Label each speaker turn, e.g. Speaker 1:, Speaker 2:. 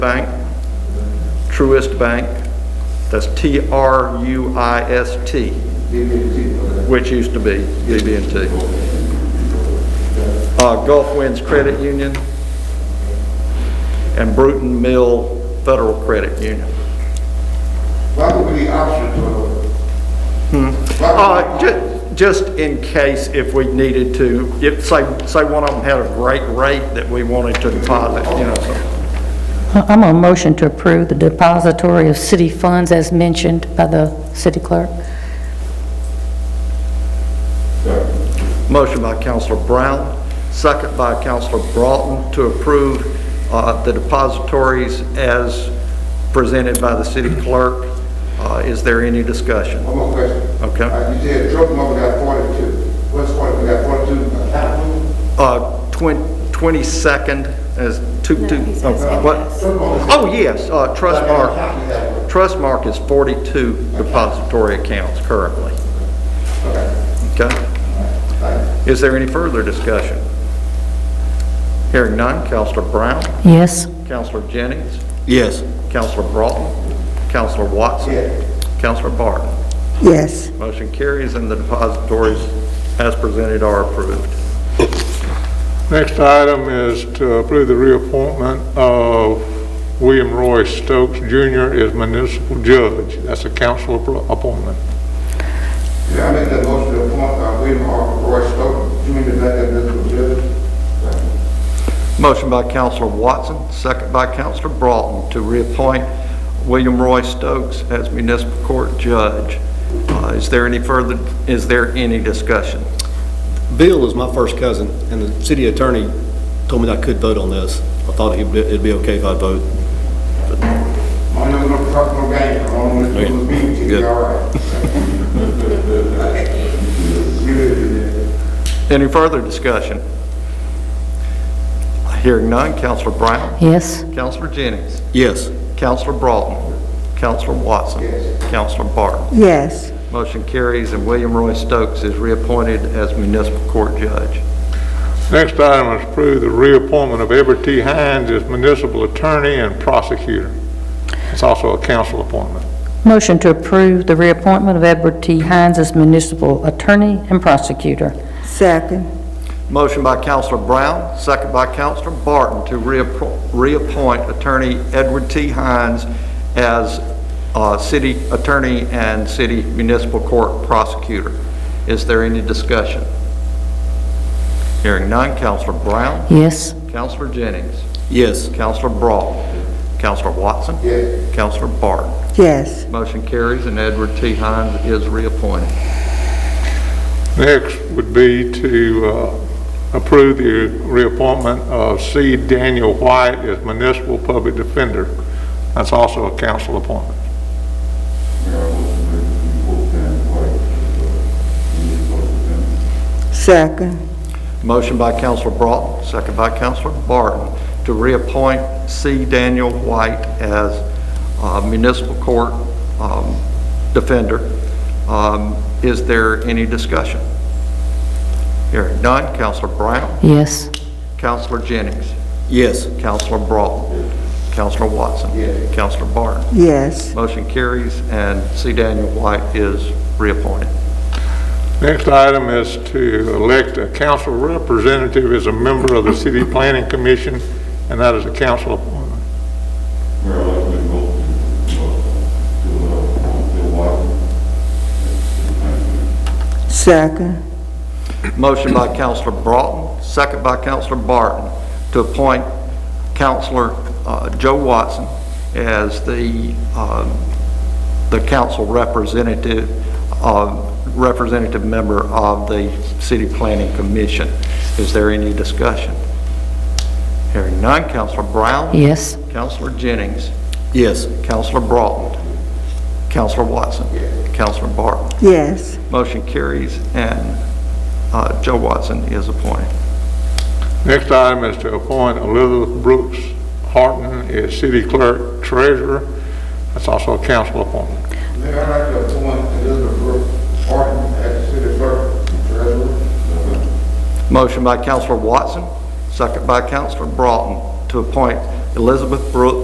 Speaker 1: Bank, Truist Bank, that's T-R-U-I-S-T, which used to be BB&T. Uh, Gulf Winds Credit Union, and Bruton Mill Federal Credit Union.
Speaker 2: What would be the options of? What
Speaker 1: Uh,
Speaker 2: would-
Speaker 1: ju- just in case if we needed to, if, say, say one of them had a great rate that we wanted to deposit, you know, something.
Speaker 3: Uh, I'm on motion to approve the depository of city funds as mentioned by the city clerk.
Speaker 1: Motion by Counselor Brown, second by Counselor Broughton to approve uh, the depositories as presented by the city clerk. Uh, Is there any discussion?
Speaker 2: One more question.
Speaker 1: Okay.
Speaker 2: Uh, You said Trump number got forty-two. What's forty, we got forty-two accountants?
Speaker 1: Uh, twen- 22nd as two, two, oh, what? Oh, yes, uh, Trustmark, Trustmark is 42 depository accounts currently. Okay? Is there any further discussion? Hearing none, Counselor Brown?
Speaker 3: Yes,
Speaker 1: Counselor Jennings,
Speaker 4: Yes.
Speaker 1: Counselor Broughton, Counselor Watson.
Speaker 2: Yes.
Speaker 1: Counselor Barton.
Speaker 5: Yes,
Speaker 1: Motion carries and the depositories as presented are approved.
Speaker 6: Next item is to approve the reappointment of William Roy Stokes Jr. as municipal judge. That's a council appro- appointment.
Speaker 2: Yeah, I make that motion to appoint uh, William R. Roy Stokes, Junior, back as municipal judge.
Speaker 1: Motion by Counselor Watson, second by Counselor Broughton to reappoint William Roy Stokes as municipal court judge. Uh, Is there any further, is there any discussion?
Speaker 4: Bill is my first cousin, and the city attorney told me that I could vote on this. I thought it'd be- it'd be okay if I vote.
Speaker 2: I don't know, no talk, no game, I don't know, it's gonna be, it'll be
Speaker 4: Good.
Speaker 2: all right. Good, yeah.
Speaker 1: Any further discussion? Hearing none, Counselor Brown,
Speaker 3: yes,
Speaker 1: Counselor Jennings,
Speaker 4: Yes.
Speaker 1: Counselor Broughton. Counselor Watson. Counselor Barton.
Speaker 5: yes,
Speaker 1: Motion carries, and William Roy Stokes is reappointed as municipal court judge.
Speaker 6: Next item is approve the reappointment of Everett T. Hines as municipal attorney and prosecutor. It's also a council appointment.
Speaker 3: motion to approve the reappointment of Edward T. Hines as municipal attorney and prosecutor.
Speaker 5: second,
Speaker 1: Motion by Counselor Brown, second by Counselor Barton to reappro- reappoint Attorney Edward T. Hines as uh, city attorney and city municipal court prosecutor. Is there any discussion? Hearing none, Counselor Brown,
Speaker 3: Yes,
Speaker 1: Counselor Jennings,
Speaker 4: Yes.
Speaker 1: Counselor Broughton, Counselor Watson.
Speaker 2: Yes.
Speaker 1: Counselor Barton.
Speaker 5: yes,
Speaker 1: Motion carries, and Edward T. Hines is reappointed.
Speaker 6: Next would be to uh, approve the reappointment of C. Daniel White as municipal public defender. That's also a council appointment.
Speaker 5: second,
Speaker 1: Motion by Counselor Broughton, second by Counselor Barton, to reappoint C. Daniel White as uh, municipal court um, defender. Um, Is there any discussion? Hearing none, Counselor Brown,
Speaker 3: yes,
Speaker 1: Counselor Jennings,
Speaker 4: Yes.
Speaker 1: Counselor Broughton, Counselor Watson. Counselor Barton.
Speaker 5: yes,
Speaker 1: Motion carries, and C. Daniel White is reappointed.
Speaker 6: Next item is to elect a council representative as a member of the city planning commission, and that is a council appointment.
Speaker 5: second,
Speaker 1: Motion by Counselor Broughton, second by Counselor Barton, to appoint Counselor uh, Joe Watson as the, um, the council representative, uh, representative member of the City Planning Commission. Is there any discussion? Hearing none, Counselor Brown?
Speaker 3: yes,
Speaker 1: Counselor Jennings?
Speaker 4: Yes.
Speaker 1: Counselor Broughton? Counselor Watson? Counselor Barton?
Speaker 5: yes,
Speaker 1: Motion carries, and uh, Joe Watson is appointed.
Speaker 6: Next item is to appoint Elizabeth Brooks Harton as city clerk treasurer. That's also a council appointment.
Speaker 2: Mayor, I'd like to appoint Elizabeth Brooke Horton as city clerk and treasurer.
Speaker 1: Motion by Counselor Watson, second by Counselor Broughton, to appoint Elizabeth Brooks